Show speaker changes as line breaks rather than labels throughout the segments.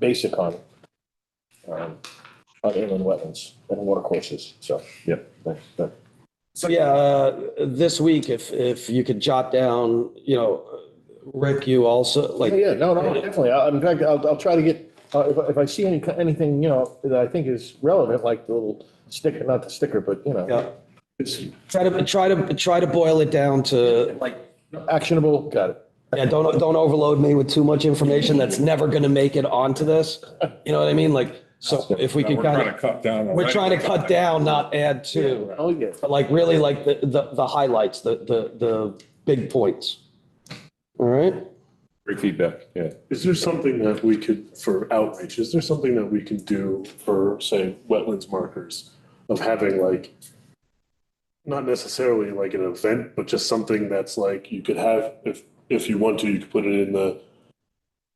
basic on um, on inland wetlands and watercourses, so.
Yep, thanks. That-
So yeah, uh, this week, if, if you could jot down, you know, Rick, you also, like,
Yeah, no, no, definitely. I- In fact, I'll, I'll try to get, uh, if, I- if I see any, anything, you know, that I think is relevant, like the little sticker, not the sticker, but you know,
yeah,
it's
try to, try to, try to boil it down to, like,
actionable, got it.
yeah, don't, don't overload me with too much information that's never going to make it onto this. You know what I mean? Like, so if we could
We're
kind
trying to
of,
cut down. on-
we're trying to cut down, not add to,
Oh, yeah.
but like really like the, the, the highlights, the, the, the big points. All right?
Great feedback, yeah.
Is there something that we could, for outreach, is there something that we can do for, say, wetlands markers? Of having like, not necessarily like an event, but just something that's like, you could have, if, if you want to, you could put it in the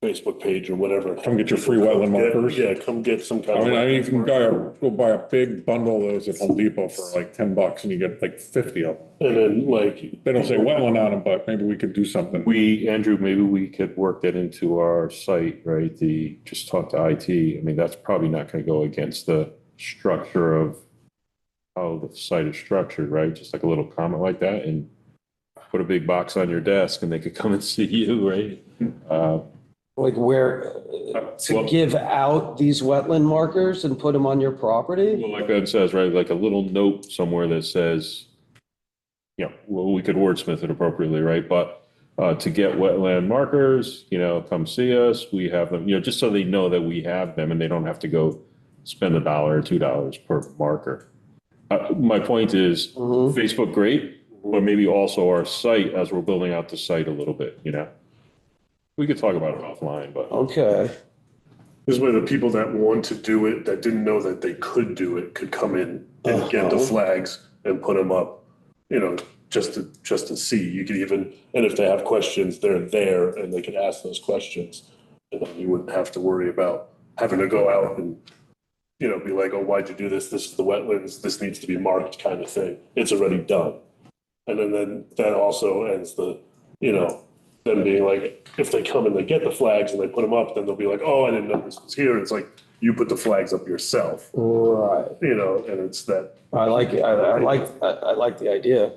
Facebook page or whatever.
Come get your free wetland
Yeah,
markers.
Yeah, come get some kind
I
of.
mean, I
wetland
even
marker.
got a, go buy a big bundle of those at Home Depot for like ten bucks and you get like fifty of them.
And then like,
They don't say wetland on them, but maybe we could do something.
We, Andrew, maybe we could work that into our site, right? The, just talk to IT. I mean, that's probably not going to go against the structure of how the site is structured, right? Just like a little comment like that and put a big box on your desk and they could come and see you, right? Uh,
Like where, uh, to
Well-
give out these wetland markers and put them on your property?
Well, like Ben says, right, like a little note somewhere that says, you know, well, we could wordsmith it appropriately, right? But uh, to get wetland markers, you know, come see us, we have them, you know, just so they know that we have them and they don't have to go spend a dollar or two dollars per marker. Uh, My point is,
Mhm.
Facebook, great, but maybe also our site as we're building out the site a little bit, you know? We could talk about it offline, but.
Okay.
this way the people that want to do it, that didn't know that they could do it, could come in and get the flags and put them up. You know, just to, just to see, you could even, and if they have questions, they're there and they can ask those questions. And then you wouldn't have to worry about having to go out and, you know, be like, oh, why'd you do this? This is the wetlands, this needs to be marked kind of thing. It's already done. And then, then that also ends the, you know, them being like, if they come and they get the flags and they put them up, then they'll be like, oh, I didn't know this was here. It's like, you put the flags up yourself,
Right.
you know, and it's that,
I like, it. I, I like, I, I like the idea.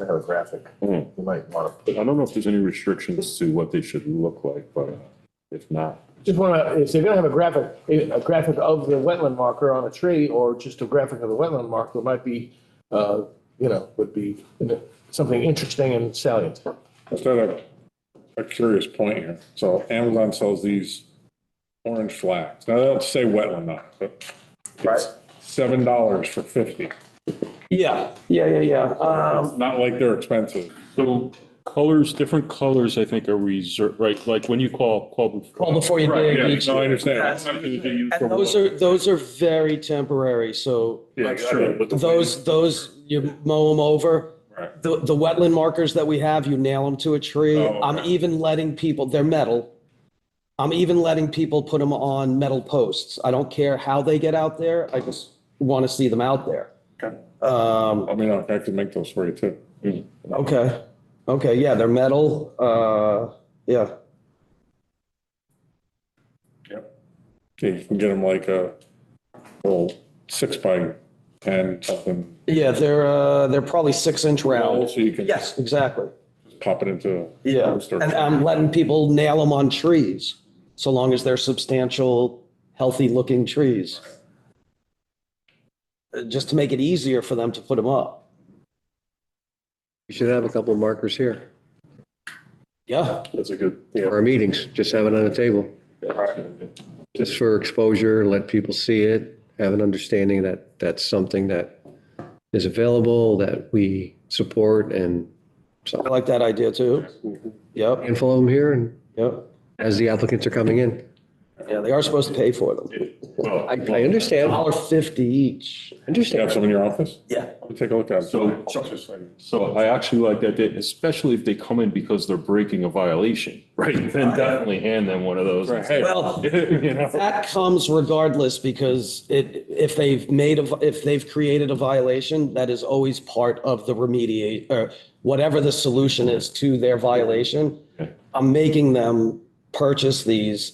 I have a graphic.
Hmm.
You might want to.
I don't know if there's any restrictions to what they should look like, but if not,
Just want to, if they're going to have a graphic, a a graphic of the wetland marker on a tree or just a graphic of the wetland marker might be, uh, you know, would be you know, something interesting and salient.
Just had a, a curious point here. So Amazon sells these orange flags. Now, they don't say wetland on it, but it's seven dollars for fifty.
Yeah, yeah, yeah, yeah. Um,
Not like they're expensive.
So colors, different colors, I think are reserved, right? Like when you call, call.
well, before you
Right,
dig
yeah,
each.
no, I understand.
That's- And those are, those are very temporary, so
yeah,
That's
I
true.
mean, with the
those, those, you mow them over.
Right.
The, the wetland markers that we have, you nail them to a tree.
Oh,
I'm
okay.
even letting people, they're metal. I'm even letting people put them on metal posts. I don't care how they get out there. I just want to see them out there. Um,
I mean, I could make those for you too.
okay, okay, yeah, they're metal, uh, yeah.
Yep. Okay, you can get them like a little six by ten something.
Yeah, they're, uh, they're probably six inch round.
So you can
Yes, exactly.
pop it into.
Yeah,
Poster.
and uh, I'm letting people nail them on trees, so long as they're substantial, healthy-looking trees. Uh, Just to make it easier for them to put them up.
We should have a couple of markers here
Yeah,
That's a good, yeah.
for our meetings, just have it on the table. Just for exposure, let people see it, have an understanding that that's something that is available, that we support and so
I like that idea too. Yep,
handful of them here and
yep.
as the applicants are coming in.
Yeah, they are supposed to pay for them.
I, I understand, I
Dollar fifty each.
You have
understand.
some in your office?
Yeah.
Let me take a look at it.
So- So I actually like that, they- especially if they come in because they're breaking a violation, right? Then definitely hand them one of those. and say,
Well,
You know,
That comes regardless because it, if they've made, a vi- if they've created a violation, that is always part of the remediate, or whatever the solution is to their violation. I'm making them purchase these